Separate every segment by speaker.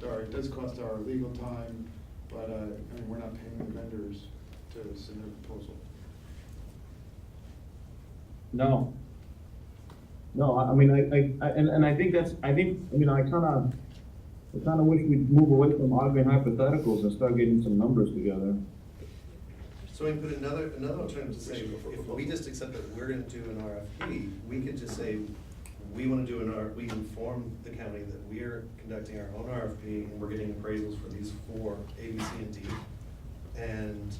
Speaker 1: sorry, it does cost our legal time, but, uh, I mean, we're not paying the vendors to submit a proposal.
Speaker 2: No. No, I, I mean, I, I, I- and, and I think that's, I think, you know, I kinda, I kinda wish we'd move away from arguing hypotheticals and start getting some numbers together.
Speaker 3: So we put another, another alternative to say, if we just accept that we're gonna do an RFP, we could just say, we wanna do an R, we inform the county that we're conducting our own RFP and we're getting appraisals for these four, A, B, C, and D. And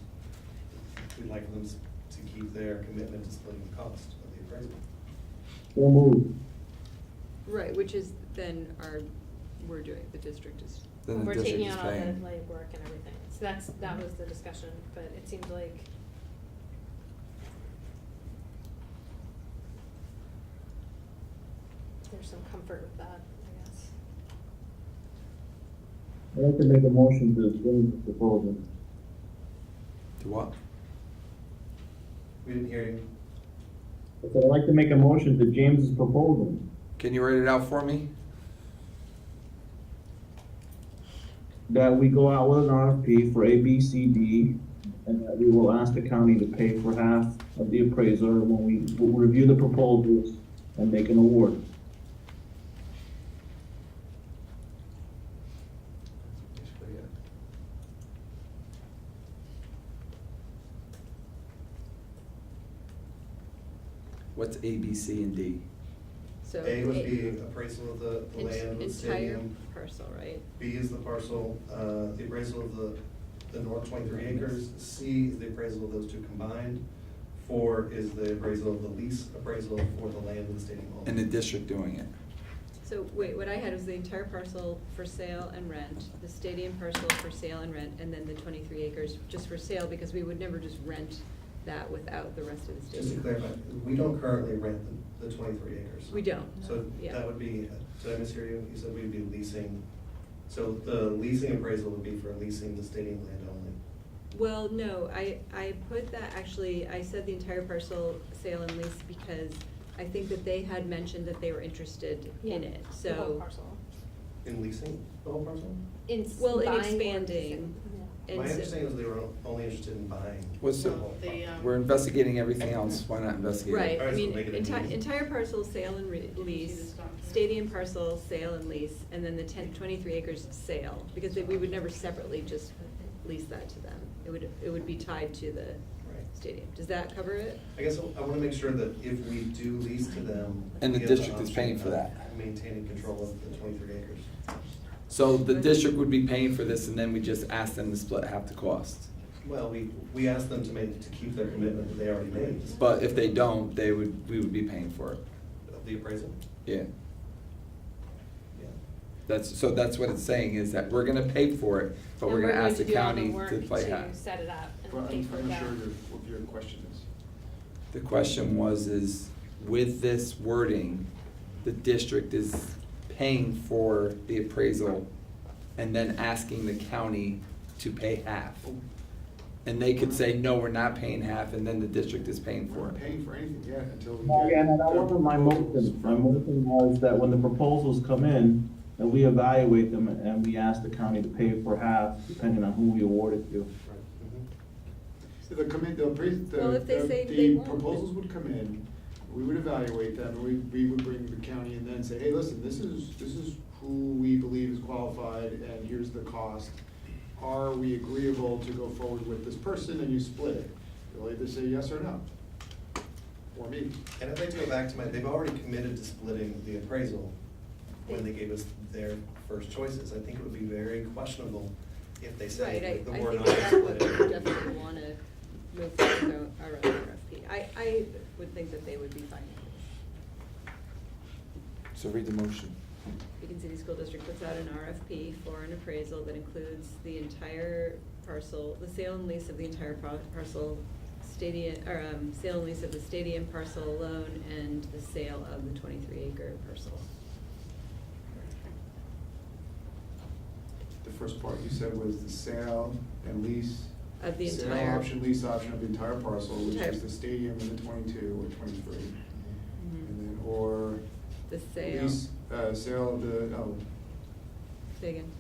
Speaker 3: we'd like them to keep their commitment to splitting the cost of the appraisal.
Speaker 2: So move.
Speaker 4: Right, which is then our, we're doing, the district is,
Speaker 5: Then the
Speaker 6: We're
Speaker 5: district
Speaker 6: taking
Speaker 5: is
Speaker 6: out all the
Speaker 5: paying.
Speaker 6: legwork and everything, so that's, that was the discussion, but it seemed like, there's some comfort with that, I guess.
Speaker 2: I'd like to make a motion to approve the proposal.
Speaker 5: To what?
Speaker 3: We didn't hear you.
Speaker 2: I said, I'd like to make a motion to James's proposal.
Speaker 5: Can you write it out for me?
Speaker 2: That we go out with an RFP for A, B, C, D, and that we will ask the county to pay for half of the appraiser when we, we'll review the proposals and make an award.
Speaker 3: Basically, yeah.
Speaker 5: What's A, B, C, and D?
Speaker 4: so.
Speaker 3: A would be appraisal of the the
Speaker 4: Ent-
Speaker 3: land, of the
Speaker 4: Entire
Speaker 3: stadium.
Speaker 4: parcel, right?
Speaker 3: B is the parcel, uh, the appraisal of the, the north twenty-three acres. C is the appraisal of those two combined. Four is the appraisal of the lease appraisal for the land of the stadium hall.
Speaker 5: And the district doing it.
Speaker 4: So wait, what I had was the entire parcel for sale and rent, the stadium parcel for sale and rent, and then the twenty-three acres just for sale, because we would never just rent that without the rest of the
Speaker 3: Just to
Speaker 4: stadium.
Speaker 3: clarify, we don't currently rent the, the twenty-three acres.
Speaker 4: We don't,
Speaker 3: So
Speaker 4: yeah.
Speaker 3: that would be, did I mishear you? You said we'd be leasing. So the leasing appraisal would be for leasing the stadium land only.
Speaker 4: Well, no, I, I put that, actually, I said the entire parcel sale and lease because I think that they had mentioned that they were interested in it, so.
Speaker 6: The whole parcel.
Speaker 3: In leasing the whole parcel?
Speaker 6: In
Speaker 4: Well, in
Speaker 6: buying or
Speaker 4: expanding.
Speaker 6: leasing, yeah.
Speaker 4: And
Speaker 3: My
Speaker 4: so-
Speaker 3: understanding is they were only interested in buying.
Speaker 5: What's the,
Speaker 3: the whole
Speaker 7: The,
Speaker 3: parcel.
Speaker 7: um,
Speaker 5: we're investigating everything else, why not investigate? it?
Speaker 4: Right, I
Speaker 3: Alright, so
Speaker 4: mean,
Speaker 3: make it a
Speaker 4: entire,
Speaker 3: lease.
Speaker 4: entire parcel sale and re- lease,
Speaker 7: this document?
Speaker 4: stadium parcel sale and lease, and then the ten, twenty-three acres sale, because they- we would never separately just lease that to them. It would, it would be tied to the
Speaker 3: Right.
Speaker 4: stadium. Does that cover it?
Speaker 3: I guess I wanna make sure that if we do lease to them.
Speaker 5: And the
Speaker 3: we have
Speaker 5: district is
Speaker 3: option
Speaker 5: paying for
Speaker 3: of
Speaker 5: that.
Speaker 3: Maintaining control of the twenty-three acres.
Speaker 5: So the district would be paying for this and then we just ask them to split half the cost.
Speaker 3: Well, we, we asked them to make, to keep their commitment that they already made.
Speaker 5: But if they don't, they would, we would be paying for it.
Speaker 3: Of the appraisal,
Speaker 5: Yeah.
Speaker 3: yeah.
Speaker 5: That's, so that's what it's saying is that we're gonna pay for it, but we're gonna ask the county to play
Speaker 6: And we're going to do all the work
Speaker 5: half.
Speaker 6: to set it up
Speaker 1: But I'm,
Speaker 6: Uh, and pay for
Speaker 1: I'm
Speaker 6: that.
Speaker 1: not sure your, what your question is.
Speaker 5: The question was is, with this wording, the district is paying for the appraisal and then asking the county to pay half. And they could say, no, we're not paying half, and then the district is paying
Speaker 1: We're
Speaker 5: for
Speaker 1: not
Speaker 5: it.
Speaker 1: paying for anything yet until we
Speaker 2: No,
Speaker 1: get.
Speaker 2: yeah, no, that
Speaker 1: their
Speaker 2: wasn't my
Speaker 1: proposals
Speaker 2: motion. My
Speaker 1: from-
Speaker 2: motion was that when the proposals come in, that we evaluate them and we ask the county to pay for half, depending on who we award it to.
Speaker 3: Right. mhm.
Speaker 1: So The commit, the appraisal,
Speaker 4: Well,
Speaker 1: the,
Speaker 4: if they say
Speaker 1: the-
Speaker 4: they
Speaker 1: the
Speaker 4: won't.
Speaker 1: proposals would come in, we would evaluate them, and we, we would bring the county and then say, hey, listen, this is, this is who we believe is qualified, and here's the cost. Are we agreeable to go forward with this person, and you split it? They'll either say yes or no, or maybe.
Speaker 3: And I'd like to go back to my, they've already committed to splitting the appraisal when they gave us their first choices. I think it would be very questionable if they
Speaker 4: Right, I,
Speaker 3: said that
Speaker 4: I
Speaker 3: we're not
Speaker 4: think that's
Speaker 3: splitting.
Speaker 4: what we definitely wanna move forward with our own RFP. I, I would think that they would be fine with this.
Speaker 5: So read the motion.
Speaker 4: Beacon City School District puts out an RFP for an appraisal that includes the entire parcel, the sale and lease of the entire par- parcel, stadium, or, um, sale and lease of the stadium parcel alone and the sale of the twenty-three acre parcel.
Speaker 1: The first part you said was the sale and lease.
Speaker 4: Of the
Speaker 1: Sale
Speaker 4: entire-
Speaker 1: option, lease option of the entire parcel, which
Speaker 4: Entire-
Speaker 1: is the stadium and the twenty-two or twenty-three.
Speaker 4: Mm-hmm.
Speaker 1: And then, or.
Speaker 4: The sale,
Speaker 1: lease, Uh, sale of the, oh,
Speaker 4: say again.